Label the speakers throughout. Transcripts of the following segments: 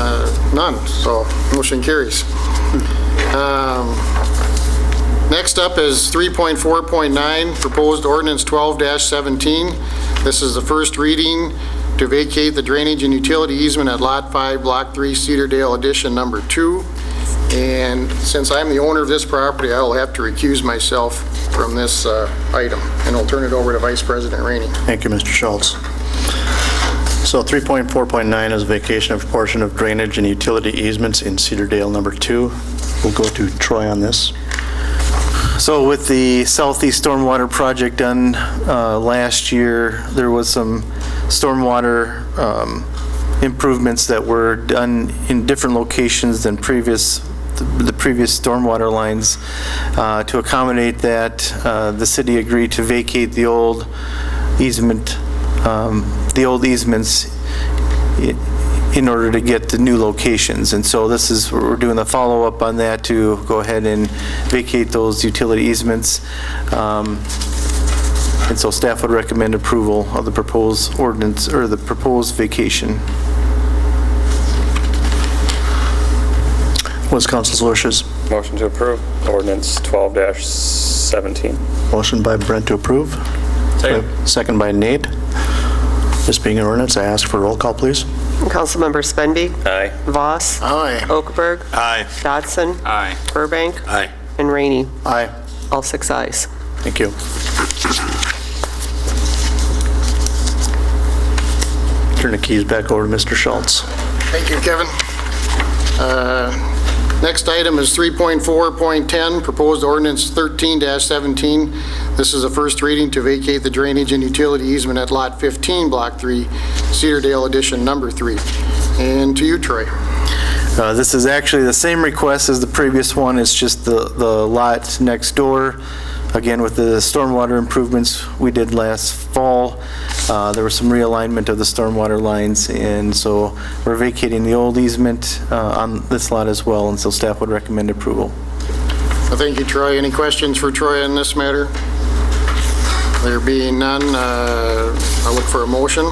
Speaker 1: Uh, None, so motion carries. Um, Next up is 3.4.9, Proposed Ordinance 12-17. This is the first reading to vacate the drainage and utility easement at Lot 5, Block 3, Cedar Dale Addition Number 2. And since I'm the owner of this property, I'll have to recuse myself from this uh, item, and I'll turn it over to Vice President Rainey.
Speaker 2: Thank you, Mr. Schultz. So 3.4.9 is vacation of portion of drainage and utility easements in Cedar Dale Number 2. We'll go to Troy on this.
Speaker 3: So with the southeast stormwater project done uh, last year, there was some stormwater um, improvements that were done in different locations than previous, the previous stormwater lines. Uh, To accommodate that, uh, the city agreed to vacate the old easement, um, the old easements i- in order to get the new locations. And so this is, we're doing the follow-up on that to go ahead and vacate those utility easements. Um, And so staff would recommend approval of the proposed ordinance, or the proposed vacation.
Speaker 2: What's council's wishes?
Speaker 4: Motion to approve ordinance 12-17.
Speaker 2: Motion by Brent to approve. Second. Second by Nate. This being an ordinance, I ask for roll call, please.
Speaker 5: Councilmember Spenvi.
Speaker 4: Aye.
Speaker 5: Voss.
Speaker 1: Aye.
Speaker 5: Okaberg.
Speaker 6: Aye.
Speaker 5: Dodson.
Speaker 6: Aye.
Speaker 5: Burbank.
Speaker 6: Aye.
Speaker 5: And Rainey.
Speaker 2: Aye.
Speaker 5: All six ayes.
Speaker 2: Thank you. Turn the keys back over to Mr. Schultz.
Speaker 1: Thank you, Kevin. Uh, Next item is 3.4.10, Proposed Ordinance 13-17. This is a first reading to vacate the drainage and utility easement at Lot 15, Block 3, Cedar Dale Edition Number 3. And to you, Troy.
Speaker 3: Uh, This is actually the same request as the previous one, it's just the, the lot next door. Again, with the stormwater improvements we did last fall, uh, there was some realignment of the stormwater lines, and so we're vacating the old easement uh, on this lot as well, and so staff would recommend approval.
Speaker 1: Well, Thank you, Troy. Any questions for Troy on this matter? There being none, uh, I'll look for a motion.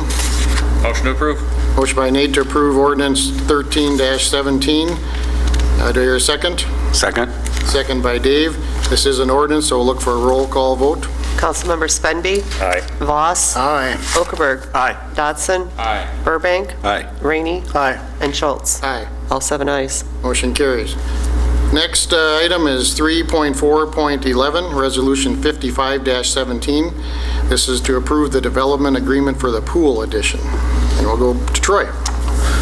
Speaker 6: Motion to approve.
Speaker 1: Motion by Nate to approve Ordinance 13-17. Uh, Do I hear a second?
Speaker 6: Second.
Speaker 1: Second by Dave. This is an ordinance, so we'll look for a roll call vote.
Speaker 5: Councilmember Spenvi.
Speaker 4: Aye.
Speaker 5: Voss.
Speaker 1: Aye.
Speaker 5: Okaberg.
Speaker 6: Aye.
Speaker 5: Dodson.
Speaker 6: Aye.
Speaker 5: Burbank.
Speaker 6: Aye.
Speaker 5: Rainey.
Speaker 2: Aye.
Speaker 5: And Schultz.
Speaker 1: Aye.
Speaker 5: All seven ayes.
Speaker 1: Motion carries. Next uh, item is 3.4.11, Resolution 55-17. This is to approve the development agreement for the pool addition. And we'll go to Troy.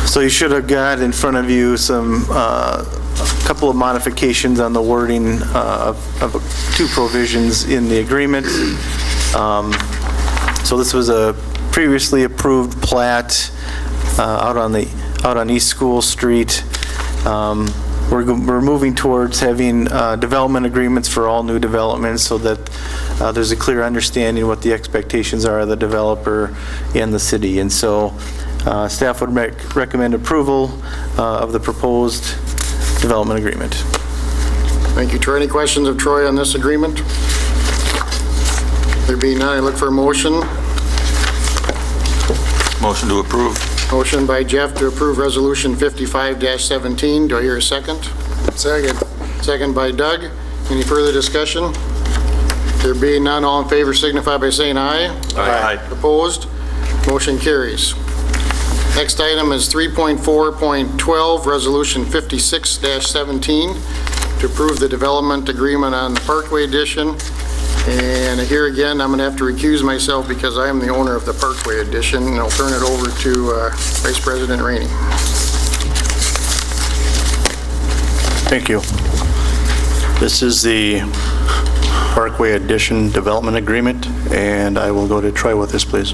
Speaker 3: So you should have got in front of you some, uh, a couple of modifications on the wording uh, of of two provisions in the agreement. Um, So this was a previously approved plat uh, out on the, out on East School Street. Um, We're go- we're moving towards having uh, development agreements for all new developments so that uh, there's a clear understanding what the expectations are of the developer and the city. And so uh, staff would rec- recommend approval uh, of the proposed development agreement.
Speaker 1: Thank you, Troy. Any questions of Troy on this agreement? There being none, I look for a motion.
Speaker 6: Motion to approve.
Speaker 1: Motion by Jeff to approve Resolution 55-17. Do I hear a second? Second. Second by Doug. Any further discussion? There being none, all in favor signify by saying aye.
Speaker 6: Aye.
Speaker 1: Opposed? Motion carries. Next item is 3.4.12, Resolution 56-17, to approve the development agreement on the Parkway Edition. And here again, I'm going to have to recuse myself because I am the owner of the Parkway Edition, and I'll turn it over to uh, Vice President Rainey.
Speaker 2: Thank you. This is the Parkway Addition Development Agreement, and I will go to Troy with this, please.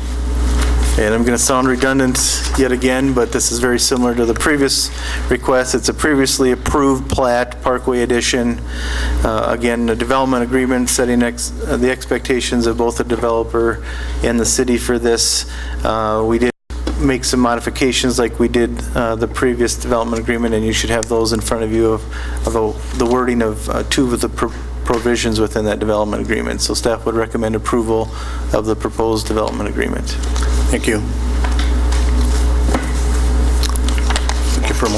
Speaker 3: And I'm going to sound redundant yet again, but this is very similar to the previous request. It's a previously approved plat, Parkway Edition. Uh, Again, a development agreement setting ex- uh, the expectations of both the developer and the city for this. Uh, We did make some modifications like we did uh, the previous development agreement, and you should have those in front of you of of the the wording of uh, two of the pro- provisions within that development agreement. So staff would recommend approval of the proposed development agreement.
Speaker 2: Thank you. Thank you for a motion.